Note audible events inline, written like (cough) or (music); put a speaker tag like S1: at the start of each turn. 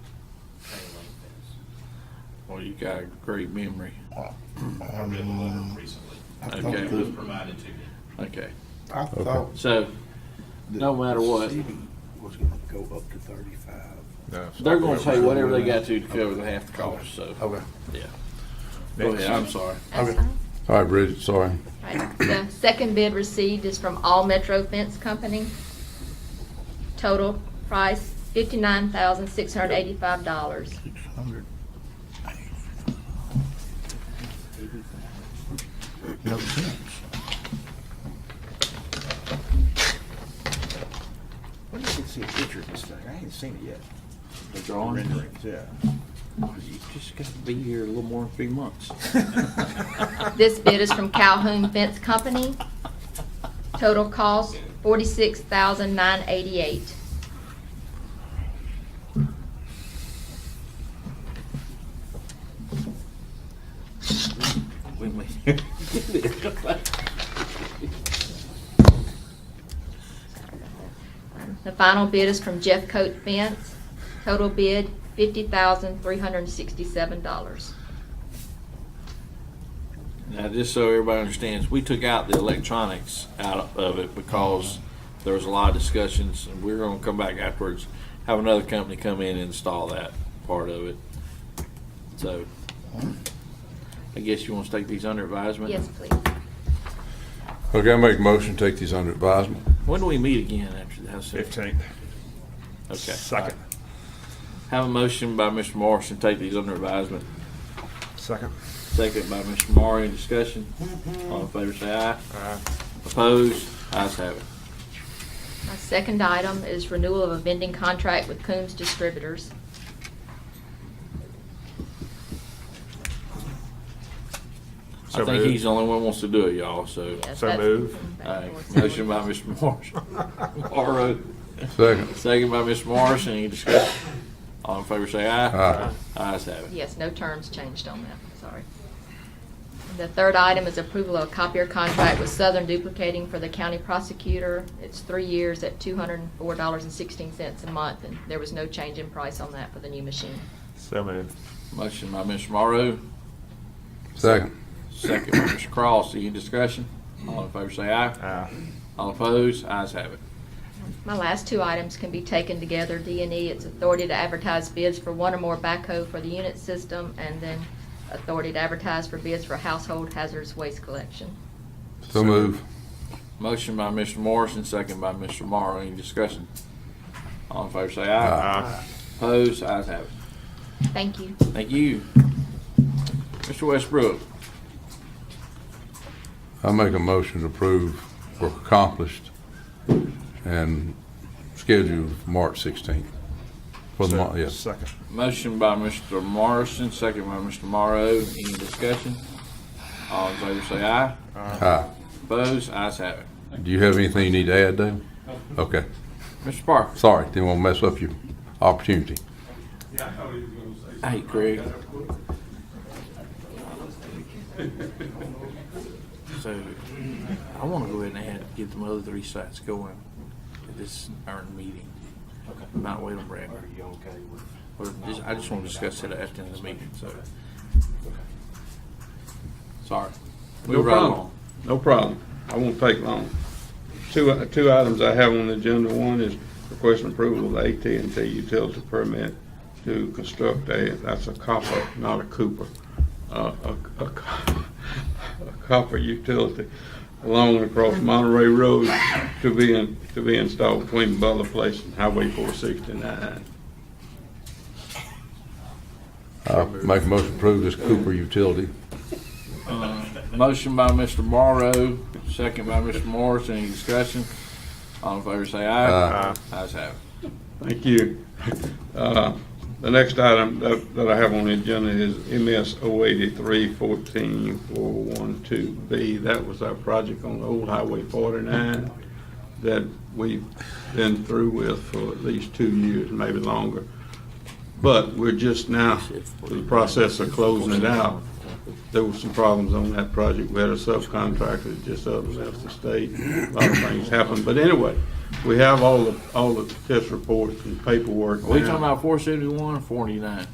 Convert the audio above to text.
S1: Well, you got a great memory.
S2: I read the letter recently.
S3: I thought
S1: Okay.
S2: It was
S3: the-
S2: provided to me.
S1: Okay,
S3: I thought
S1: so
S3: the
S1: No matter what.
S3: city Was gonna go up to thirty-five.
S1: they're gonna pay whatever they got to to cover the half the cost, so,
S3: Okay.
S1: yeah. Go ahead, I'm sorry.
S4: That's
S3: Okay.
S4: fine.
S5: All right, Bridget, sorry.
S4: Right. The second bid received is from All Metro Fence Company. Total price fifty-nine thousand, six hundred eighty-five dollars.
S3: Six hundred. No sense.
S6: When did you see a picture of this thing? I ain't seen it yet.
S1: The drawing,
S6: Renderings, yeah.
S1: you just gotta be here a little more than three months.
S6: (laughs)
S4: This bid is from Calhoun Fence Company. Total cost forty-six thousand, nine eighty-eight.
S6: (laughs)
S1: When (laughs) we get it.
S4: The final bid is from Jeff Coat Fence. Total bid fifty thousand, three hundred sixty-seven dollars.
S1: Now, just so everybody understands, we took out the electronics out of it because there was a lot of discussions, and we're gonna come back afterwards, have another company come in and install that part of it. So, I guess you want to take these under advisement?
S4: Yes, please.
S5: Okay, I make a motion, take these under advisement.
S1: When do we meet again after that?
S7: Fifteenth.
S1: Okay.
S7: Second.
S1: Have a motion by Mr. Morrison, take these under advisement.
S7: Second.
S1: Second by Mr. Morrow, Any discussion. All in favor, say aye. Aye. Opposed? Ayes have it.
S4: My second item is renewal of a vending contract with Coombs Distributors.
S1: I
S7: So
S1: think
S7: moved.
S1: he's the only one who wants to do it, y'all, so.
S4: Yes,
S7: So
S4: that's-
S7: move.
S1: All right, Motion by Mr. Morrison. Morrow.
S5: Second.
S1: Second by Mr. Morrison, any discussion? All in favor, say aye.
S5: Aye.
S1: Ayes have it.
S4: Yes, no terms changed on that, sorry. The third item is approval of copier contract with Southern Duplicating for the county prosecutor. It's three years at two hundred and four dollars and sixteen cents a month, and there was no change in price on that for the new machine.
S7: So moved.
S1: Motion by Mr. Morrow,
S5: Second.
S1: second by Mr. Cross, any discussion? All in favor, say aye.
S7: Aye.
S1: All opposed? Ayes have it.
S4: My last two items can be taken together. D and E, it's authority to advertise bids for one or more backhoe for the unit system, and then authority to advertise for bids for household hazardous waste collection.
S5: So move.
S1: Motion by Mr. Morrison, second by Mr. Morrow. Any discussion? All in favor, say aye.
S7: Aye.
S1: Opposed? Ayes have it.
S4: Thank you.
S1: Thank you. Mr. Westbrook,
S5: I make a motion to approve work accomplished and scheduled for March sixteenth. For the month, yes.
S7: Second.
S1: motion by Mr. Morrison, second by Mr. Morrow. Any discussion? All in favor, say aye.
S5: Aye.
S1: Opposed? Ayes have it.
S5: Do you have anything you need to add, Dale? Okay,
S1: Mr. Parker.
S5: sorry, didn't want to mess up your opportunity.
S1: Hey, Craig. So, I wanna go ahead and add, get them other three sites going at this urn meeting. Not wait on Brad. Are you okay with? I just wanna discuss it after the meeting, so. Sorry.
S8: No problem. No problem. I won't take long. Two, two items I have on the agenda. One is requesting approval of at and T utility permit to construct a, that's a copper, not a Cooper, uh, a, a co- (laughs) a copper utility along and across Monterey Road to be, in- to be installed between Butler Place and Highway 469.
S5: I make a motion to approve this Cooper utility.
S1: Motion by Mr. Morrow, second by Mr. Morris. Any discussion? All in favor, say aye.
S5: Aye.
S1: Ayes have it.
S8: Thank you. Uh, The next item that that I have on the agenda is oh MS 083-14412B. That was our project on Old Highway 49 that we've been through with for at least two years, maybe longer. But we're just now in the process of closing it out. There were some problems on that project. We had a subcontractor that just up and left the state. A lot of things happened. But anyway, we have all the, all the test reports and paperwork
S1: Are we
S8: now.
S1: talking about four seventy-one or forty-nine?